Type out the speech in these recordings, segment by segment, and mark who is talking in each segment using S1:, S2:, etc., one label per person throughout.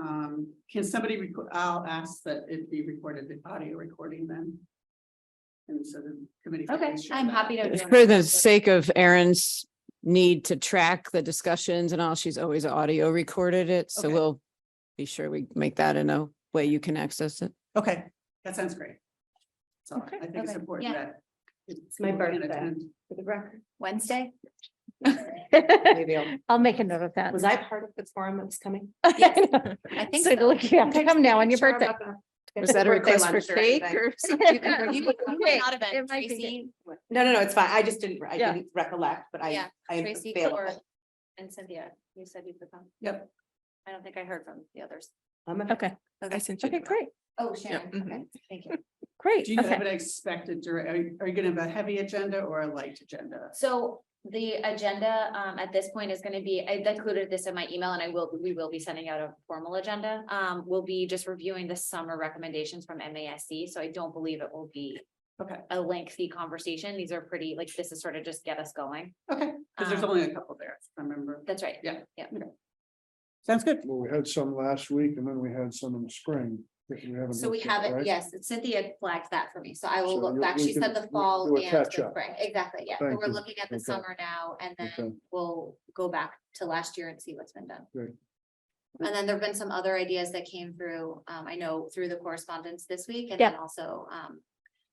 S1: Um, can somebody, reco- I'll ask that it be recorded, the audio recording then. And so the committee. can
S2: Okay,
S1: ensure
S2: I'm
S1: that.
S2: happy to. join
S3: For the
S2: that.
S3: sake of Erin's need to track the discussions and all, she's always audio recorded it, so
S1: Okay.
S3: we'll be sure we make that in a way you can access it.
S1: Okay, that sounds great. So
S2: Okay,
S1: I think it's
S2: okay,
S1: important
S2: yeah.
S1: that. It's
S4: my birthday.
S2: For the record, Wednesday?
S4: Maybe I'll-
S5: I'll make a note of that.
S4: Was I part of the forum that was coming?
S2: Yes,
S5: I
S2: I think
S5: So
S2: so.
S5: look, you have to come now on your
S4: Sure,
S5: birthday.
S4: I'm not gonna-
S3: Was that a
S4: birthday
S3: request for
S4: lunch or
S3: cake
S4: anything.
S3: or?
S4: You can- you can-
S5: Okay,
S2: Not event,
S5: it might be
S2: Tracy,
S4: No, no, no, it's fine. I just didn't, I
S5: Yeah.
S4: didn't recollect, but I,
S2: Yeah,
S4: I am
S2: Tracy Cor-
S4: available.
S2: and Cynthia, you said you could come.
S1: Yep.
S2: I don't think I heard from the others.
S4: I'm available.
S5: Okay,
S2: I sent
S5: okay, great,
S2: Oh, Sharon,
S3: mm-hmm.
S2: okay, thank you.
S5: great.
S1: Do you
S5: Okay.
S1: have an expected, dura- are you, are you gonna have a heavy agenda or a light agenda?
S2: So the agenda um at this point is gonna be, I included this in my email and I will, we will be sending out a formal agenda. Um, we'll be just reviewing the summer recommendations from MASC, so I don't believe it will be.
S1: Okay.
S2: A lengthy conversation. These are pretty, like, this is sort of just get us going.
S1: Okay, because there's
S2: Um,
S1: only a couple there, if I remember.
S2: That's right.
S1: Yeah.
S2: Yeah.
S1: Sounds good.
S6: Well, we had some last week and then we had some in the spring. that we haven't
S2: So we
S6: looked at,
S2: have it,
S6: right?
S2: yes, Cynthia flagged that for me, so I will
S6: So
S2: look
S6: you-
S2: back,
S6: we
S2: she
S6: can-
S2: said the
S6: we-
S2: fall
S6: do a
S2: and the
S6: catch-up.
S2: spring, exactly, yeah, so
S6: Thank
S2: we're
S6: you.
S2: looking at the
S6: Okay.
S2: summer now, and
S6: Okay.
S2: then we'll go back to last year and see what's been done.
S6: Good.
S2: And then there've been some other ideas that came through, um, I know through the correspondence this week, and then also, um,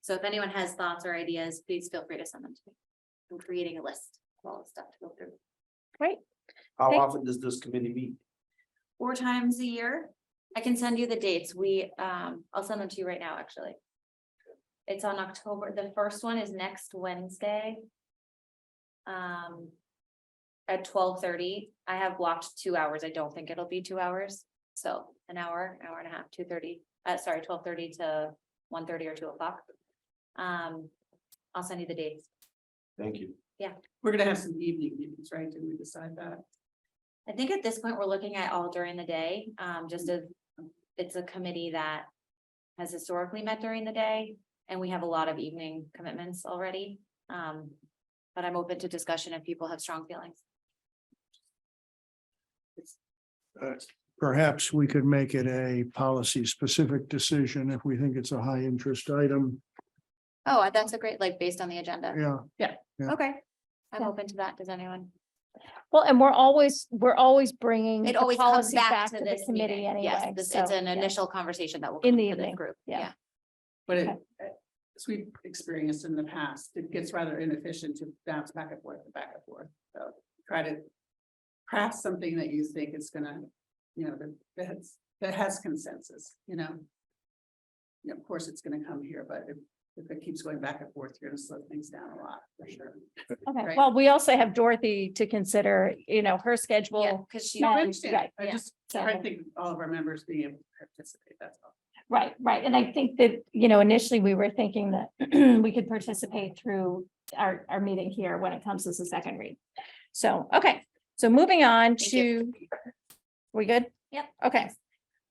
S2: so if anyone has thoughts or ideas, please feel free to send them to me. I'm creating a list of all the stuff to go through,
S7: How
S5: Okay.
S7: often does this committee meet?
S2: four times a year, I can send you the dates, we, um, I'll send them to you right now, actually. It's on October, the first one is next Wednesday. Um. At twelve thirty, I have blocked two hours, I don't think it'll be two hours, so an hour, hour and a half, two thirty, uh, sorry, twelve thirty to one thirty or two o'clock. Um, I'll send you the dates,
S7: Thank you.
S1: We're gonna have some evening meetings, right? Did we decide that?
S2: I think at this point, we're looking at all during the day, um, just
S5: Mm.
S2: as, it's a committee that. Has historically met during the day, and we have a lot of evening commitments already, um. But I'm open to discussion if people have strong feelings.
S6: Perhaps we could make it a policy specific decision if we think it's a high interest item.
S2: Oh, that's a great, like, based on the agenda,
S6: Yeah, yeah.
S2: okay, I'm
S5: Yeah.
S2: open to that, does anyone?
S5: Well, and we're always, we're always bringing.
S2: It
S5: the
S2: always comes
S5: policy
S2: back to
S5: the
S2: this
S5: Committee
S2: meeting, yes,
S5: anyway.
S2: this,
S5: so,
S2: it's an
S5: yeah.
S2: initial conversation that will.
S5: In
S2: come
S5: the
S2: to this
S5: evening,
S2: Group,
S5: yeah.
S2: yeah,
S1: But it, eh, as we've experienced in the past, it gets rather inefficient to bounce back and forth and back and forth. So try to craft something that you think is gonna, you know, that, that's, that has consensus, you know? You know, Of course, it's gonna come here, but if, if it keeps going back and forth, you're gonna slow things down a lot, for sure.
S5: Okay,
S1: right?
S5: well, we also have Dorothy to consider, you know, her
S2: yeah,
S5: schedule.
S2: cause she.
S1: No, I
S5: Right,
S1: understand. I
S2: yeah.
S1: just,
S5: So-
S1: I think all of our members being able to participate, that's all.
S5: Right, right. And I think that, you know, initially we were thinking that we could participate through our, our meeting here when it comes to the second read. So, okay, so moving on
S2: Thank
S5: to,
S2: you.
S5: we good?
S2: Yep.
S5: Okay.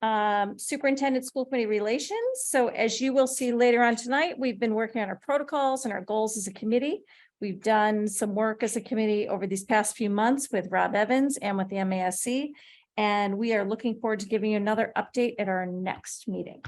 S5: Um, Superintendent School Committee Relations. So as you will see later on tonight, we've been working on our protocols and our goals as a committee. We've done some work as a committee over these past few months with Rob Evans and with the MASC. And we are looking forward to giving you another update at our next meeting.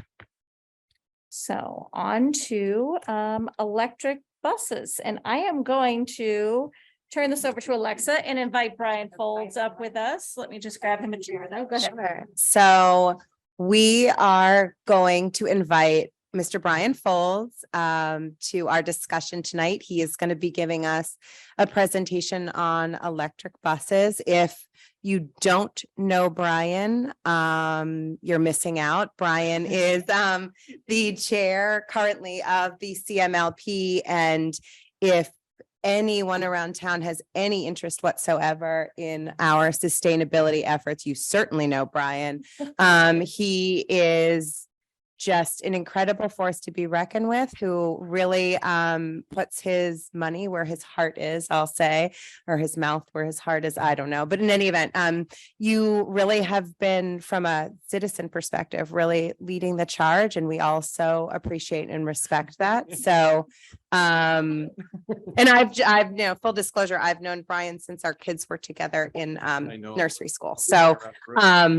S5: So on to um electric buses, and I am going to turn this over to Alexa and invite Brian Folds up with us. Let me just grab him a chair though. Go ahead.
S8: Sure. So we are going to invite Mr. Brian Folds um, to our discussion tonight. He is going to be giving us a presentation on electric buses. If you don't know Brian, um, you're missing out. Brian is um, the chair currently of the CMLP. And if anyone around town has any interest whatsoever in our sustainability efforts, you certainly know Brian. Um, he is just an incredible force to be reckoned with who really um puts his money where his heart is, I'll say, or his mouth where his heart is, I don't know. But in any event, um you really have been from a citizen perspective really leading the charge and we also appreciate and respect that. So um and I've, j- I've, no, full disclosure, I've known Brian since our kids were together in um
S7: I know.
S8: nursery school. So, um,